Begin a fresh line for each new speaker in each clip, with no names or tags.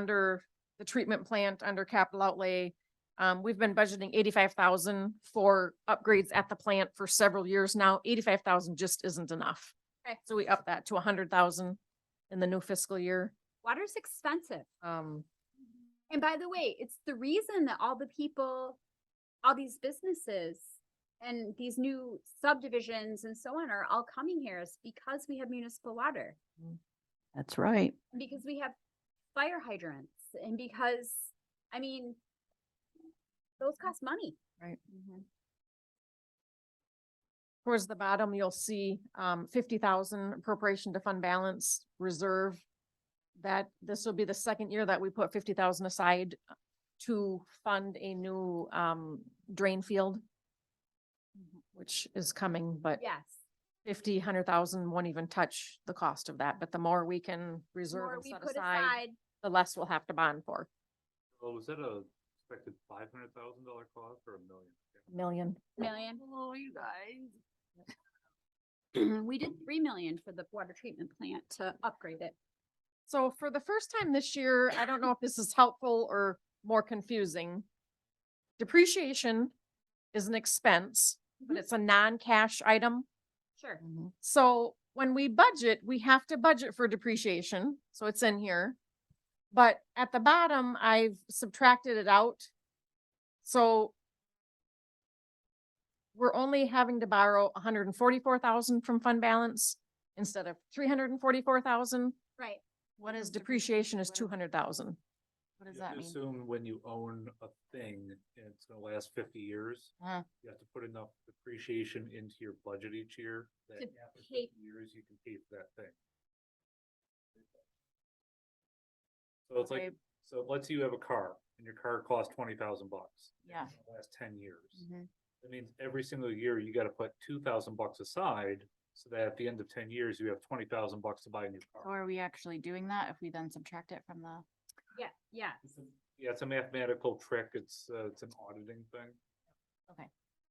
under the treatment plant, under capital outlay. Um, we've been budgeting eighty-five thousand for upgrades at the plant for several years now. Eighty-five thousand just isn't enough.
Okay.
So we up that to a hundred thousand in the new fiscal year.
Water's expensive.
Um,
And by the way, it's the reason that all the people, all these businesses and these new subdivisions and so on are all coming here is because we have municipal water.
That's right.
and Because we have fire hydrants and because, I mean, those cost money.
Right. towards the bottom, you'll see, um, fifty thousand appropriation to fund balance reserve. That this will be the second year that we put fifty thousand aside to fund a new, um, drain field. Mm-hmm. Which is coming, but
Yes.
fifty, hundred thousand won't even touch the cost of that, but the more we can reserve
More
and
we
set
put
aside,
aside,
the less we'll have to bond for.
Well, was that a expected five hundred thousand dollar cost or a million?
Million.
million.
Oh, you guys.
We did three million for the water treatment plant to upgrade it.
So for the first time this year, I don't know if this is helpful or more confusing. Depreciation is an expense, but
Mhm.
it's a non-cash item.
Sure.
Mm-hmm.
Mm-hmm.
So when we budget, we have to budget for depreciation, so it's in here. But at the bottom, I've subtracted it out. So we're only having to borrow hundred and forty-four thousand from fund balance instead of three hundred and forty-four thousand.
Right.
What is depreciation is two hundred thousand. What does
You
that
have to
mean?
Assume when you own a thing and it's gonna last fifty years,
Uh-huh.
you have to put enough depreciation into your budget each year. That
To
after
pay-
50 years, you can pay for that thing. So it's like,
Okay.
so let's say you have a car and your car costs twenty thousand bucks. and
Yeah.
it's gonna Last ten years.
Mhm.
That means every single year you gotta put two thousand bucks aside so that at the end of ten years, you have twenty thousand bucks to buy a new
So
car.
are we actually doing that if we then subtract it from the?
Yeah, yeah.
It's a- Yeah, it's a mathematical trick. It's, uh, it's an auditing thing.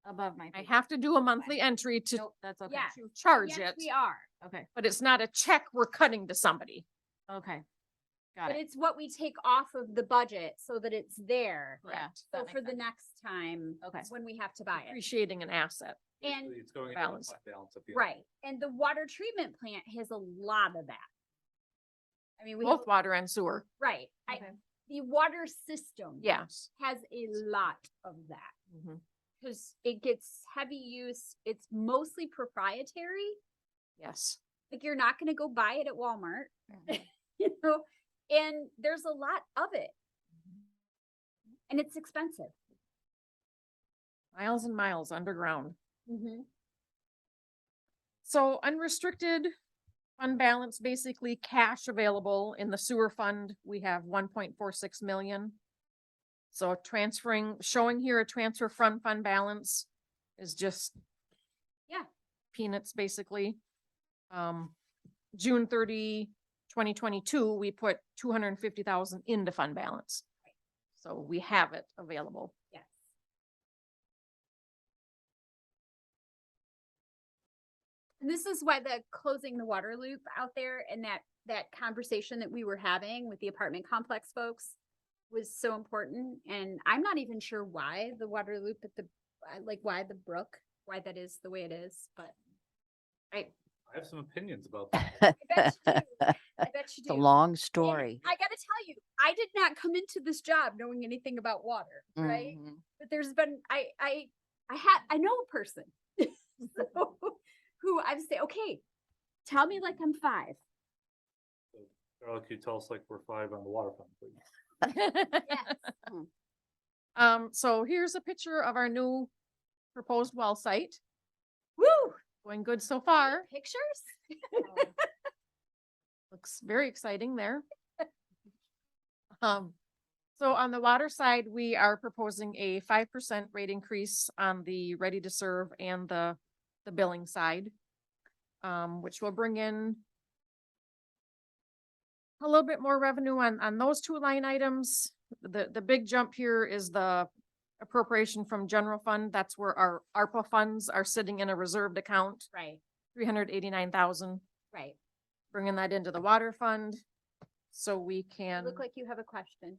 Above my.
I
pay-
have to do a monthly entry to
Nope, that's okay.
Yeah.
to charge
Yes,
it,
we are.
Okay,
but it's not a check we're cutting to somebody.
okay. Got
But
it.
it's what we take off of the budget so that it's there.
Yeah. that
So
makes
for the
sense.
next time.
Okay.
When we have to buy it.
Appreciating an asset.
And-
Basically, It's going. into the
balance.
fund Balance. at the end.
Right. And the water treatment plant has a lot of that. I mean, we, have
Both water and sewer,
right. I,
Okay.
the water system.
yes.
Has a lot of that.
Mhm.
Cause it gets heavy use. It's mostly proprietary.
Yes,
Like you're not gonna go buy it at Walmart. You know, and there's a lot of it. And it's expensive.
miles and miles underground.
Mm-hmm.
So unrestricted fund balance, basically cash available in the sewer fund, we have one point four six million. So transferring, showing here a transfer from fund balance is just.
Yeah.
Peanuts, basically. Um, June 30, 2022, we put two hundred and fifty thousand into fund balance. So we have it available.
Yes. And this is why the closing the water loop out there and that, that conversation that we were having with the apartment complex folks was so important. And I'm not even sure why the water loop at the, I- like why the brook, why that is the way it is, but I,
I have some opinions about that.
I bet you do. I bet you
It's a
do.
long
And
story.
I gotta tell you, I did not come into this job knowing anything about water, right?
Mhm.
but there's been I I I had I know a person so, who I would say, okay, tell me like I'm five.
Carl, could you tell us like we're five on the water fund, please?
Mm-hmm.
Um, so here's a picture of our new proposed well site,
Woo!
going good so far,
Pictures?
Oh. looks very exciting there. Um, so on the water side, we are proposing a five percent rate increase on the ready to serve and the, the billing side. Um, which will bring in a little bit more revenue on, on those two line items. The, the big jump here is the appropriation from general fund. That's where our ARPA funds are sitting in a reserved account,
Right,
three hundred eighty-nine thousand
right.
bringing that into the water fund. so we
You
can.
Look like you have a question.